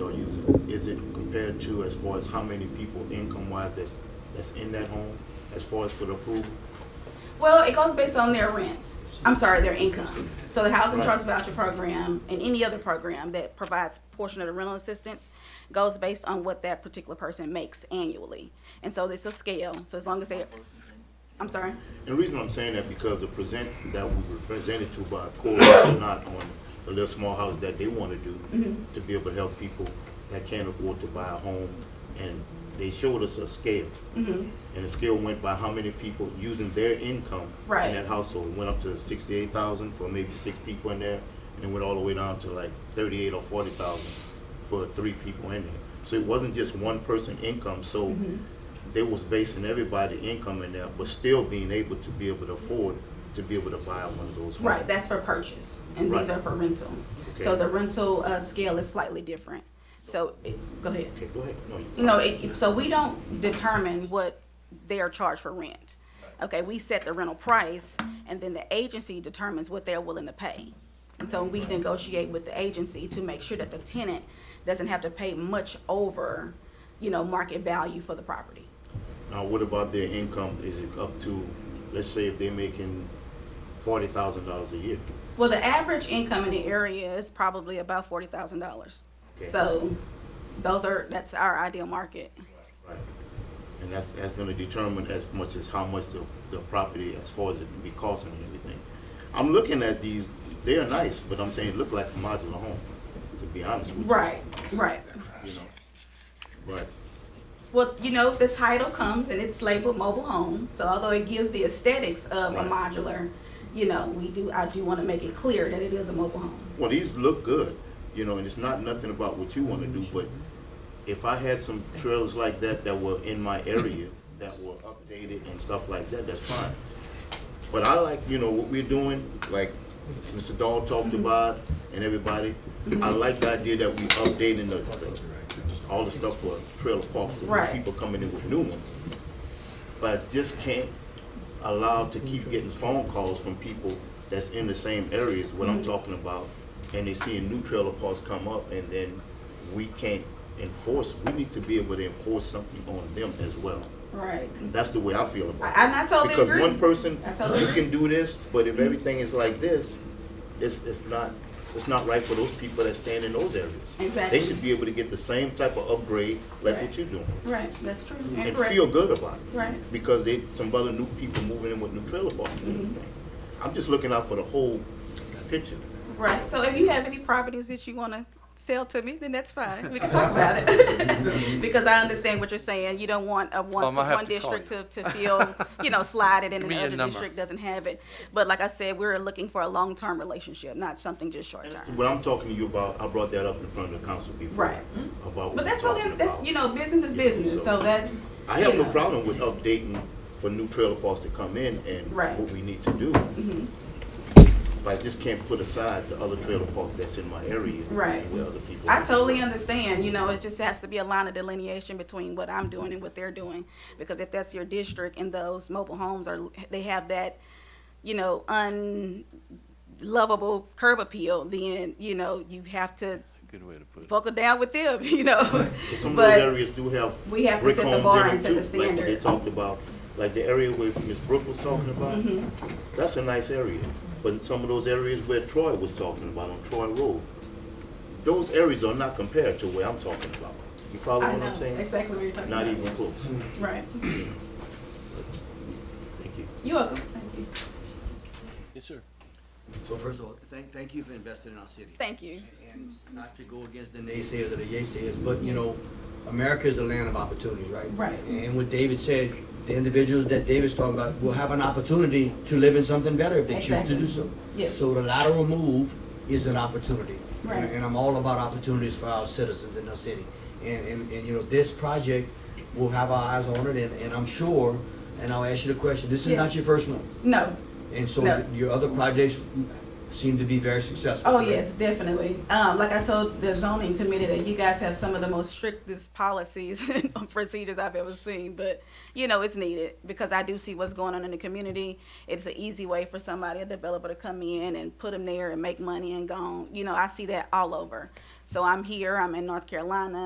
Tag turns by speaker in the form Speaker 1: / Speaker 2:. Speaker 1: or using it, is it compared to as far as how many people income-wise that's, that's in that home, as far as for the approval?
Speaker 2: Well, it goes based on their rent. I'm sorry, their income. So the Housing
Speaker 1: Right.
Speaker 2: Trust Voucher Program and any other program that provides portion of the rental assistance goes based on what that particular person makes annually. And so it's a scale. So as long as they, I'm sorry.
Speaker 1: And the reason I'm saying that because the present that we were presented to by Corey is not on the little small house that they want to do to be able to help people that can't afford to buy a home. And they showed us a scale. And the scale went by how many people using their income
Speaker 2: Right.
Speaker 1: in that household. Went up to sixty-eight thousand for maybe six people in there, and it went all the way down to like thirty-eight or forty thousand for three people in there. So it wasn't just one person income, so they was basing everybody income in there, but still being able to be able to afford to be able to buy one of those homes.
Speaker 2: Right, that's for purchase and these
Speaker 1: Right.
Speaker 2: are for rental. So
Speaker 1: Okay.
Speaker 2: the rental uh, scale is slightly different. So, it- go ahead.
Speaker 1: Okay, go ahead. No, you.
Speaker 2: No, it, so we don't determine what they are charged for rent. Okay, we set the rental price, and then the agency determines what they're willing to pay. And so we negotiate with the agency to make sure that the tenant doesn't have to pay much over, you know, market value for the property.
Speaker 1: Now, what about their income? Is it up to, let's say if they're making forty thousand dollars a year?
Speaker 2: Well, the average income in the area is probably about forty thousand dollars.
Speaker 1: Okay.
Speaker 2: So those are, that's our ideal market.
Speaker 1: Right. And that's, that's gonna determine as much as how much the, the property, as far as it can be costing and everything. I'm looking at these, they are nice, but I'm saying, look like a modular home, to be honest with you.
Speaker 2: Right, right.
Speaker 1: You know, but,
Speaker 2: Well, you know, the title comes and it's labeled mobile home, so although it gives the aesthetics of a
Speaker 1: Right.
Speaker 2: modular, you know, we do, I do wanna make it clear that it is a mobile home.
Speaker 1: well, these look good, you know, and it's not nothing about what you wanna do, but if I had some trailers like that that were in my area, that were updated and stuff like that, that's fine. But I like, you know, what we're doing, like Mr. Dahl talked about and everybody. I like the idea that we updating the, the- all the stuff for trailer parks and
Speaker 2: Right.
Speaker 1: people coming in with new ones. But I just can't allow to keep getting phone calls from people that's in the same areas, what
Speaker 2: Mm-hmm.
Speaker 1: I'm talking about. And they seeing new trailer parks come up and then we can't enforce, we need to be able to enforce something on them as well.
Speaker 2: Right.
Speaker 1: That's the way I feel about it.
Speaker 2: I, and I totally
Speaker 1: Because one
Speaker 2: agree.
Speaker 1: person,
Speaker 2: I totally
Speaker 1: you
Speaker 2: agree. Mm-hmm.
Speaker 1: can do this, but if everything is like this, it's, it's not, it's not right for those people that stand in those areas.
Speaker 2: Exactly.
Speaker 1: They should be able to get the same type of upgrade like
Speaker 2: Right.
Speaker 1: what you're doing.
Speaker 2: Right, that's true. and
Speaker 1: And
Speaker 2: correct.
Speaker 1: feel good about it.
Speaker 2: Right.
Speaker 1: Because they, some other new people moving in with new trailer parks and everything.
Speaker 2: Mm-hmm.
Speaker 1: I'm just looking out for the whole picture.
Speaker 2: Right, so if you have any properties that you wanna sell to me, then that's fine, we can talk about it. Because I understand what you're saying, you don't want a one,
Speaker 3: Um, I have
Speaker 2: one
Speaker 3: to call
Speaker 2: district to, to feel, you know, slighted and
Speaker 3: Give me your
Speaker 2: another
Speaker 3: number.
Speaker 2: district doesn't have it. But like I said, we're looking for a long-term relationship, not something just short-term.
Speaker 1: What I'm talking to you about, I brought that up in front of the council before.
Speaker 2: Right.
Speaker 1: About
Speaker 2: But
Speaker 1: what we're
Speaker 2: that's okay.
Speaker 1: talking
Speaker 2: That's
Speaker 1: about.
Speaker 2: you know, business is business. So that's.
Speaker 1: I have
Speaker 2: you
Speaker 1: no
Speaker 2: know.
Speaker 1: problem with updating for new trailer parks to come in and
Speaker 2: Right. Mm-hmm.
Speaker 1: what we need to do. But I just can't put aside the other trailer parks that's in my area.
Speaker 2: Right.
Speaker 1: Where other people.
Speaker 2: I totally understand. You know, it just has to be a line of delineation between what I'm doing and what they're doing. Because if that's your district and those mobile homes are, they have that, you know, unlovable curb appeal, then you know you have to
Speaker 3: Good way to put it.
Speaker 2: buckle down with them. You know,
Speaker 1: But Some of those
Speaker 2: but
Speaker 1: areas do have
Speaker 2: we have to
Speaker 1: brick
Speaker 2: set the
Speaker 1: homes in
Speaker 2: bar
Speaker 1: them
Speaker 2: and set
Speaker 1: too,
Speaker 2: the
Speaker 1: like what They
Speaker 2: standard.
Speaker 1: talked about, like the area where Ms. Brooke was talking about,
Speaker 2: Mm-hmm.
Speaker 1: that's a nice area. But in some of those areas where Troy was talking about on Troy Road, those areas are not compared to where I'm talking about. You follow
Speaker 2: I
Speaker 1: what
Speaker 2: know
Speaker 1: I'm saying?
Speaker 2: exactly what you're talking
Speaker 1: Not
Speaker 2: about.
Speaker 1: even close.
Speaker 2: Right.
Speaker 1: Thank you.
Speaker 2: You're welcome. Thank you.
Speaker 3: Yes, sir.
Speaker 4: So first of all, thank, thank you for investing in our city.
Speaker 2: Thank you.
Speaker 4: And not to go against the naysayers or the yaysayers, but you know, America is a land of opportunities, right?
Speaker 2: Right.
Speaker 4: And what David said, the individuals that David's talking about will have an opportunity to live in something better if they choose to
Speaker 2: Exactly.
Speaker 4: do so.
Speaker 2: Yes.
Speaker 4: So the lateral move is an opportunity.
Speaker 2: Right.
Speaker 4: And I'm all about opportunities for our citizens in our city. And, and, and you know, this project, we'll have our eyes on it and, and I'm sure, and I'll ask you the question, this is
Speaker 2: Yes.
Speaker 4: not your first one.
Speaker 2: No.
Speaker 4: And so
Speaker 2: No.
Speaker 4: your other projects seem to be very successful.
Speaker 2: Oh,
Speaker 4: correct?
Speaker 2: yes, definitely. Um, like I told the zoning committee that you guys have some of the most strictest policies and procedures I've ever seen, but, you know, it's needed because I do see what's going on in the community. It's an easy way for somebody, a developer to come in and put them there and make money and gone. You know, I see that all over. So I'm here, I'm in North Carolina,